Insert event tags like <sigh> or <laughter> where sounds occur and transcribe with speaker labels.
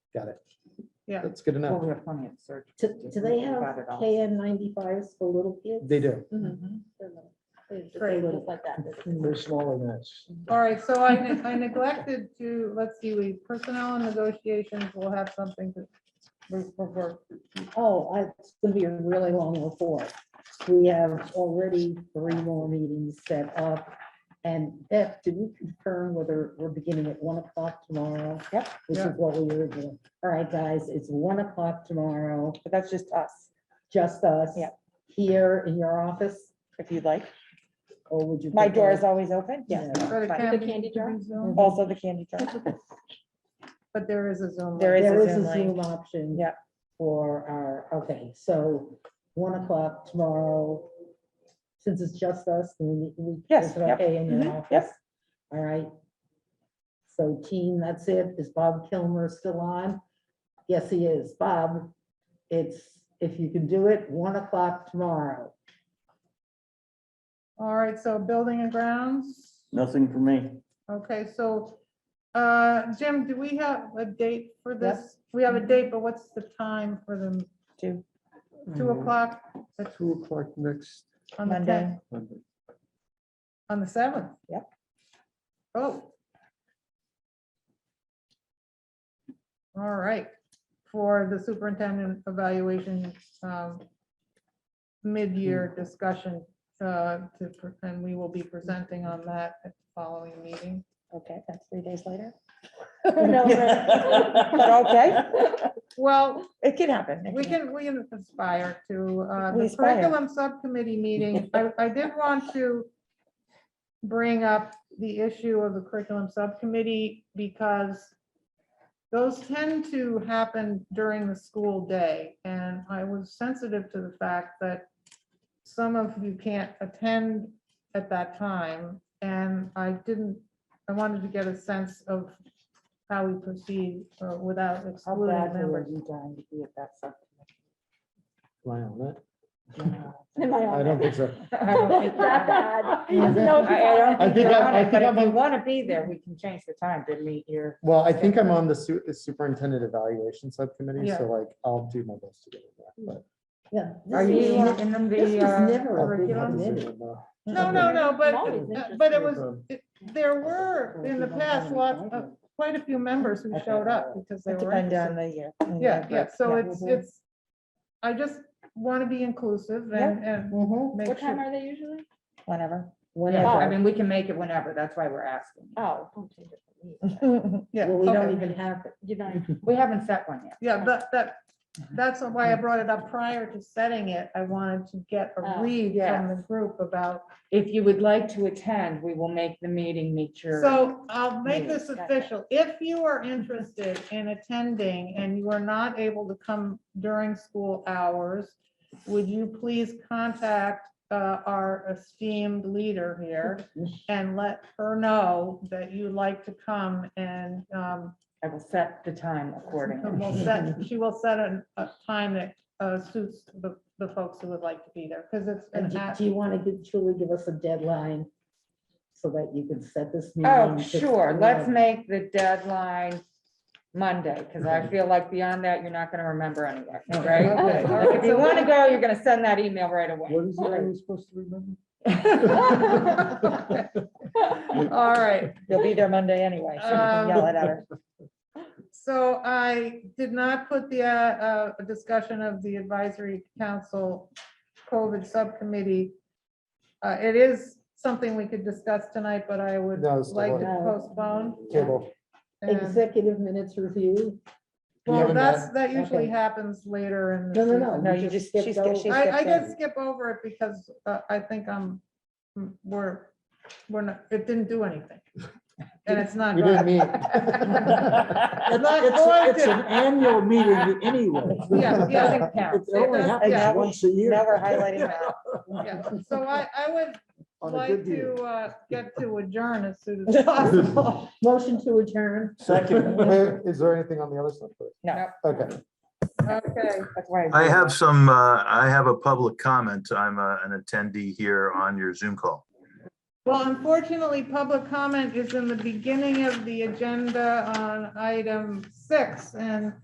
Speaker 1: Got it.
Speaker 2: Yeah.
Speaker 1: That's good
Speaker 3: Well,
Speaker 1: enough.
Speaker 3: we have plenty of search.
Speaker 4: Do,
Speaker 3: engines.
Speaker 4: do they
Speaker 3: We've
Speaker 4: have
Speaker 3: got it all.
Speaker 4: KN ninety-fives for little kids?
Speaker 1: They do.
Speaker 3: Mhm.
Speaker 4: They're little. They're just
Speaker 2: Very
Speaker 4: little like that.
Speaker 5: They're smaller than us.
Speaker 2: All right, so I, ne- I neglected to, let's see, we, personnel and negotiations will have something to, for- for, for,
Speaker 4: Oh, I- it's gonna be a really long report. We have already three more meetings set up. And Beth, did we confirm whether we're beginning at one o'clock tomorrow? Yep. Which
Speaker 2: Yeah.
Speaker 4: is what we were doing. All right, guys, it's one o'clock tomorrow,
Speaker 3: But that's just us,
Speaker 4: just us.
Speaker 3: Yep.
Speaker 4: Here in your office,
Speaker 3: if you'd like.
Speaker 4: or would you?
Speaker 3: My door
Speaker 4: prefer-
Speaker 3: is always open, yes.
Speaker 4: Yeah.
Speaker 2: for the
Speaker 3: Fine.
Speaker 2: candy.
Speaker 6: candy
Speaker 2: to
Speaker 6: jar?
Speaker 2: be Zoom,
Speaker 3: Also the candy jar.
Speaker 2: But there is a Zoom.
Speaker 3: There
Speaker 2: link.
Speaker 3: is
Speaker 4: There
Speaker 3: a
Speaker 4: is
Speaker 3: Zoom
Speaker 4: a
Speaker 3: link.
Speaker 4: Zoom option.
Speaker 3: Yep.
Speaker 4: For our, okay, so one o'clock tomorrow, since it's just us, then we. we-
Speaker 3: Yes,
Speaker 4: is it
Speaker 3: yep.
Speaker 4: Okay, in your
Speaker 3: Mhm,
Speaker 4: office?
Speaker 3: yep.
Speaker 4: All right. So team, that's it. Is Bob Kilmer still on? Yes, he is. Bob, it's, if you can do it, one o'clock tomorrow.
Speaker 2: All right, so building and grounds,
Speaker 7: Nothing for me.
Speaker 2: okay, so, uh, Jim, do we have a date for this? We have a date, but what's the time for them?
Speaker 3: Two.
Speaker 2: Two o'clock
Speaker 5: Mm-hmm. At Two o'clock next
Speaker 2: on the
Speaker 3: Monday.
Speaker 2: tenth,
Speaker 5: Monday.
Speaker 2: on the seventh?
Speaker 3: Yep.
Speaker 2: Oh. All right, for the superintendent evaluation, um, mid-year
Speaker 5: Hmm.
Speaker 2: discussion, uh, to, pre- and we will be presenting on that at the following meeting.
Speaker 3: Okay, that's three days later.
Speaker 6: <laughs> No, right.
Speaker 3: But okay,
Speaker 2: Well,
Speaker 3: it can happen. it
Speaker 2: We
Speaker 3: can-
Speaker 2: can, we can aspire to, uh,
Speaker 3: We
Speaker 2: the
Speaker 3: aspire.
Speaker 2: curriculum subcommittee meeting, I, I did want to bring up the issue of the curriculum subcommittee because those tend to happen during the school day, and I was sensitive to the fact that some of you can't attend at that time, and I didn't, I wanted to get a sense of how we proceed uh, without
Speaker 3: How
Speaker 2: excluding
Speaker 3: badly
Speaker 2: members.
Speaker 3: are you dying to be at that subcommittee?
Speaker 1: Am I on that?
Speaker 6: Am I
Speaker 1: I
Speaker 6: on
Speaker 1: don't
Speaker 6: it?
Speaker 1: think so.
Speaker 6: I don't think that bad. No, if
Speaker 3: I- I
Speaker 6: you're on
Speaker 3: don't
Speaker 6: it,
Speaker 1: I
Speaker 3: think
Speaker 1: think
Speaker 3: you're
Speaker 1: I'm-
Speaker 3: on
Speaker 1: I
Speaker 3: it,
Speaker 1: think
Speaker 3: But if
Speaker 1: I'm
Speaker 3: you
Speaker 1: on-
Speaker 3: want to be there, we can change the time to meet your.
Speaker 1: Well, I think I'm on the su- superintendent evaluation subcommittee,
Speaker 2: Yeah.
Speaker 1: so like, I'll do my best to get in that.
Speaker 4: Yeah. this
Speaker 3: Are
Speaker 4: is-
Speaker 3: you in the?
Speaker 4: This was
Speaker 3: uh,
Speaker 4: never a big
Speaker 2: curriculum?
Speaker 4: committee.
Speaker 2: No, no, no,
Speaker 6: No, it's
Speaker 2: but, uh, but it was,
Speaker 1: interesting.
Speaker 2: it- there were in the past uh, lots of, quite a few members who showed up because they
Speaker 3: It
Speaker 2: were.
Speaker 3: depends on
Speaker 2: interested.
Speaker 3: the year.
Speaker 2: Yeah, yeah, so
Speaker 3: Yeah.
Speaker 2: it's, it's, I just want to be inclusive and, and
Speaker 4: Mhm.
Speaker 2: make
Speaker 6: What time
Speaker 2: sure.
Speaker 6: are they usually?
Speaker 3: Whenever. Yeah, Oh, I
Speaker 4: Whenever.
Speaker 3: mean, we can make it whenever. That's why we're asking.
Speaker 6: Oh.
Speaker 2: Yeah,
Speaker 4: Well, we don't
Speaker 2: okay,
Speaker 4: even have it.
Speaker 6: You know,
Speaker 3: We haven't set one yet.
Speaker 2: yeah, that, that, that's why I brought it up prior to setting it. I wanted to get a
Speaker 6: Oh,
Speaker 2: read from
Speaker 3: yes.
Speaker 2: the group about,
Speaker 3: If you would like to attend, we will make the meeting meet your.
Speaker 2: so I'll make this
Speaker 6: Gotcha.
Speaker 2: official. If you are interested in attending and you are not able to come during school hours, would you please contact uh, our esteemed leader here and let her know that you'd like to come and um,
Speaker 3: I will set the time accordingly.
Speaker 2: we'll set- she will set a, a time that uh, suits the, the folks who would like to be there, because it's
Speaker 4: And
Speaker 2: an
Speaker 4: do
Speaker 2: act.
Speaker 4: do you want to truly give us a deadline so that you can set this meeting?
Speaker 3: <laughs> Oh,
Speaker 4: to-
Speaker 3: sure. Let's make the deadline Monday, because I feel like beyond that, you're not going to remember anything, <laughs>
Speaker 2: Okay, all
Speaker 3: right?
Speaker 2: right,
Speaker 3: If you
Speaker 2: so-
Speaker 3: want to go, you're going to send that email right away.
Speaker 5: What is it I was supposed to
Speaker 2: <laughs>
Speaker 5: remember?
Speaker 2: All right,
Speaker 3: You'll be there Monday anyway. so you can Yell it at her.
Speaker 2: so I did not put the uh, uh, discussion of the advisory council COVID subcommittee. Uh, It is something we could discuss tonight, but I would
Speaker 1: No, it's
Speaker 2: like to
Speaker 1: delayed.
Speaker 2: postpone.
Speaker 1: Table.
Speaker 2: and-
Speaker 4: Executive minutes review?
Speaker 1: We
Speaker 2: Well,
Speaker 1: haven't
Speaker 2: that's,
Speaker 1: met.
Speaker 2: that usually
Speaker 4: Okay.
Speaker 2: happens later in.
Speaker 4: No,
Speaker 2: the
Speaker 4: no,
Speaker 2: season.
Speaker 4: no.
Speaker 3: No,
Speaker 4: we
Speaker 3: you just-
Speaker 4: skipped
Speaker 3: she's got-
Speaker 4: over-
Speaker 3: she's-
Speaker 2: I, I
Speaker 3: skipped
Speaker 2: did
Speaker 3: over.
Speaker 2: skip over it because uh, I think I'm, mm, we're, we're not, it didn't do anything. And it's not.
Speaker 1: We didn't meet.
Speaker 2: good. It's not going
Speaker 5: It's, it's an
Speaker 2: to-
Speaker 5: annual meeting anyway.
Speaker 2: <laughs> Yeah, yeah.
Speaker 3: Doesn't count.
Speaker 5: It only
Speaker 2: does-
Speaker 3: yeah.
Speaker 5: happens once a year.
Speaker 3: Now we're highlighting that.
Speaker 2: Yeah. So I, I would
Speaker 5: On a
Speaker 2: like
Speaker 5: good year.
Speaker 2: to uh, get
Speaker 5: <laughs>
Speaker 2: to adjourn as soon as <laughs> possible.
Speaker 4: Motion to adjourn.
Speaker 1: Second, Wait, is there anything on the other side?
Speaker 3: No.
Speaker 1: Okay.
Speaker 2: Okay.
Speaker 3: That's why.
Speaker 8: I have some, uh, I have a public comment. I'm uh, an attendee here on your Zoom call.
Speaker 2: Well, unfortunately, public comment is in the beginning of the agenda on item six and